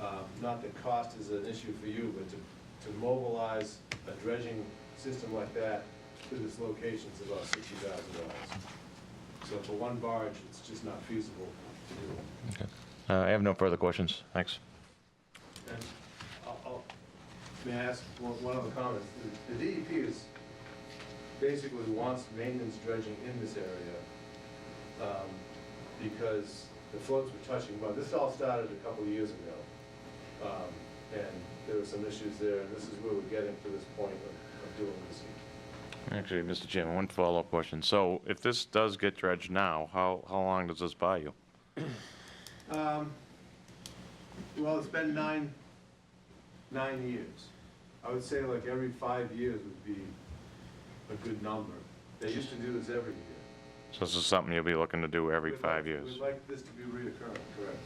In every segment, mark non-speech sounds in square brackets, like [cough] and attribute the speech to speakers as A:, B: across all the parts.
A: Um, not that cost is an issue for you, but to, to mobilize a dredging system like that to this location is about sixty thousand dollars. So for one barge, it's just not feasible to do it.
B: Uh, I have no further questions. Thanks.
A: And I'll, I'll, may I ask one, one other comment? The- The DEP is, basically wants maintenance dredging in this area, um, because the floats were touching, but this all started a couple of years ago. Um, and there were some issues there, and this is where we're getting to this point of, of doing this.
B: Actually, Mr. Chairman, one follow-up question. So if this does get dredged now, how, how long does this buy you?
A: Um, well, it's been nine, nine years. I would say like every five years would be a good number. They used to do this every year.
B: So this is something you'll be looking to do every
A: We'd
B: five
A: like-
B: years?
A: We'd like this to be reoccurring, correct.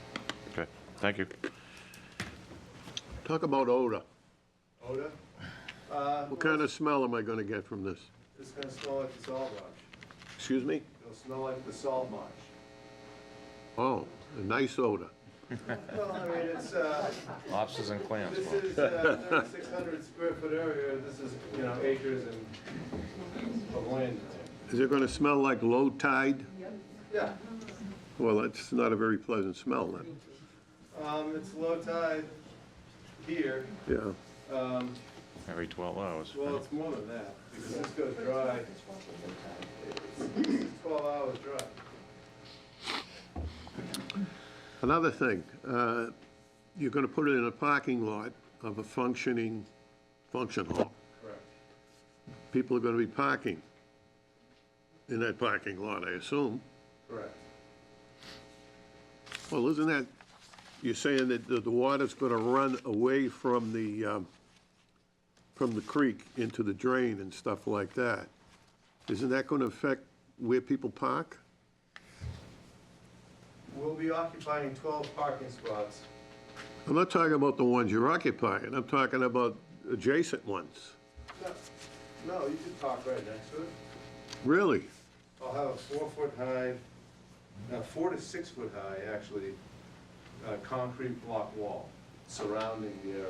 B: Okay, thank you.
C: Talk about odor.
A: [sighs] Oda? Uh,
C: What kind of smell am I gonna get from this?
A: It's gonna smell like the salt marsh.
C: Excuse me?
A: It'll smell like the salt marsh.
C: Oh, a nice odor.
A: [laughs] Well, I mean, it's, uh,
B: Lobsters and clams.
A: this is uh, thirty-six hundred square foot area, this is, you know, acres and of land.
C: Is it gonna smell like low tide?
A: Yeah,
C: Well, that's not a very pleasant smell then.
A: um, it's low tide here,
C: Yeah,
A: um,
B: Every 12 hours.
A: well, it's more than that, because this goes dry. It's twelve hours dry.
C: another thing, uh, you're gonna put it in a parking lot of a functioning function hall.
A: Correct.
C: People are gonna be parking in that parking lot, I assume.
A: Correct.
C: Well, isn't that, you're saying that the the water's gonna run away from the, um, from the creek into the drain and stuff like that? Isn't that gonna affect where people park?
A: We'll be occupying twelve parking spots.
C: I'm not talking about the ones you're occupying, I'm talking about adjacent ones.
A: No, No, you can park right next to it.
C: Really?
A: I'll have a four-foot-high, no, four to six-foot-high, actually, uh, concrete block wall surrounding the area.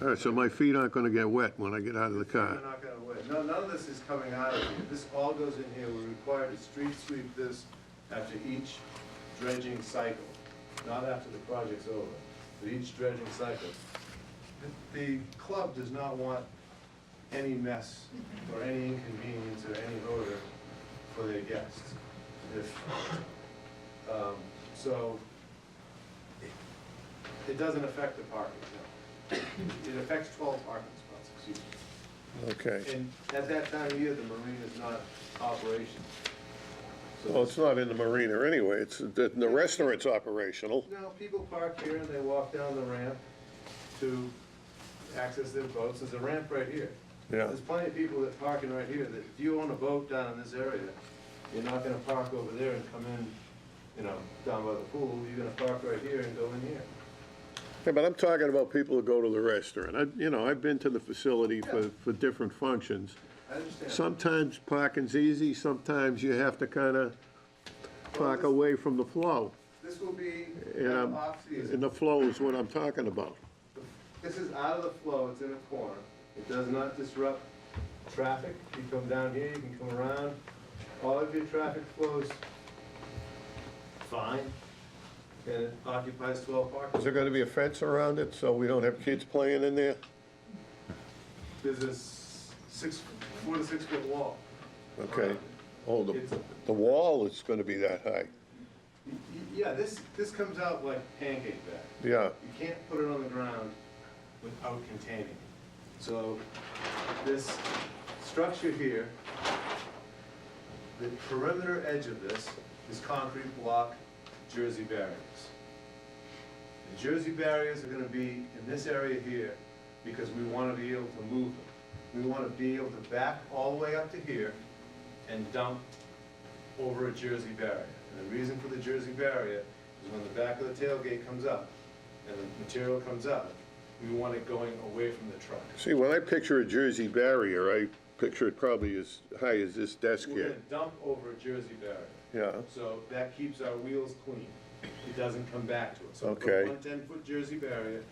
C: All right, so my feet aren't gonna get wet when I get out of the
A: We're
C: car.
A: not gonna wait. No, none of this is coming out of here. This all goes in here. We're required to street sweep this after each dredging cycle, not after the project's over, but each dredging cycle. The- The club does not want any mess or any inconvenience or any odor for their guests. If, um, so it- it doesn't affect the parking, no. It affects twelve parking spots, excuse me.
C: Okay.
A: And at that time of year, the marina is not operational.
C: Well,
A: So,
C: it's not in the marina anyway, it's, the the restaurant's operational.
A: now, people park here and they walk down the ramp to access their boats. There's a ramp right here.
C: Yeah.
A: There's plenty of people that parking right here, that if you own a boat down in this area, you're not gonna park over there and come in, you know, down by the pool. You're gonna park right here and go in here.
C: Yeah, but I'm talking about people who go to the restaurant. I, you know, I've been to the facility for, for different functions.
A: I understand.
C: Sometimes parking's easy, sometimes you have to kind of park away from the flow.
A: This will be
C: And I'm-
A: off-season.
C: and the flow is what I'm talking about.
A: This is out of the flow, it's in a corner. It does not disrupt traffic. You come down here, you can come around. All of your traffic flows fine, and it occupies twelve
C: Is
A: parking.
C: there going to be a fence around it so we don't have kids playing in there?
A: There's a s- six, four to six foot wall.
C: Okay. Oh, the,
A: It's-
C: the wall is going to be that
A: Y-
C: high.
A: y- Yeah, this, this comes out like pancake back.
C: Yeah,
A: You can't put it on the ground without containing it. So this structure here, the perimeter edge of this is concrete block Jersey barriers. The Jersey barriers are gonna be in this area here because we wanna be able to move them. We wanna be able to back all the way up to here and dump over a Jersey barrier. And the reason for the Jersey barrier is when the back of the tailgate comes up and the material comes up, we want it going away from the truck.
C: see, when I picture a Jersey barrier, I picture it probably as high as this desk
A: We're
C: here.
A: gonna dump over a Jersey barrier.
C: Yeah.
A: So that keeps our wheels clean. It doesn't come back to us. So we put
C: Okay.
A: One ten-foot Jersey barrier,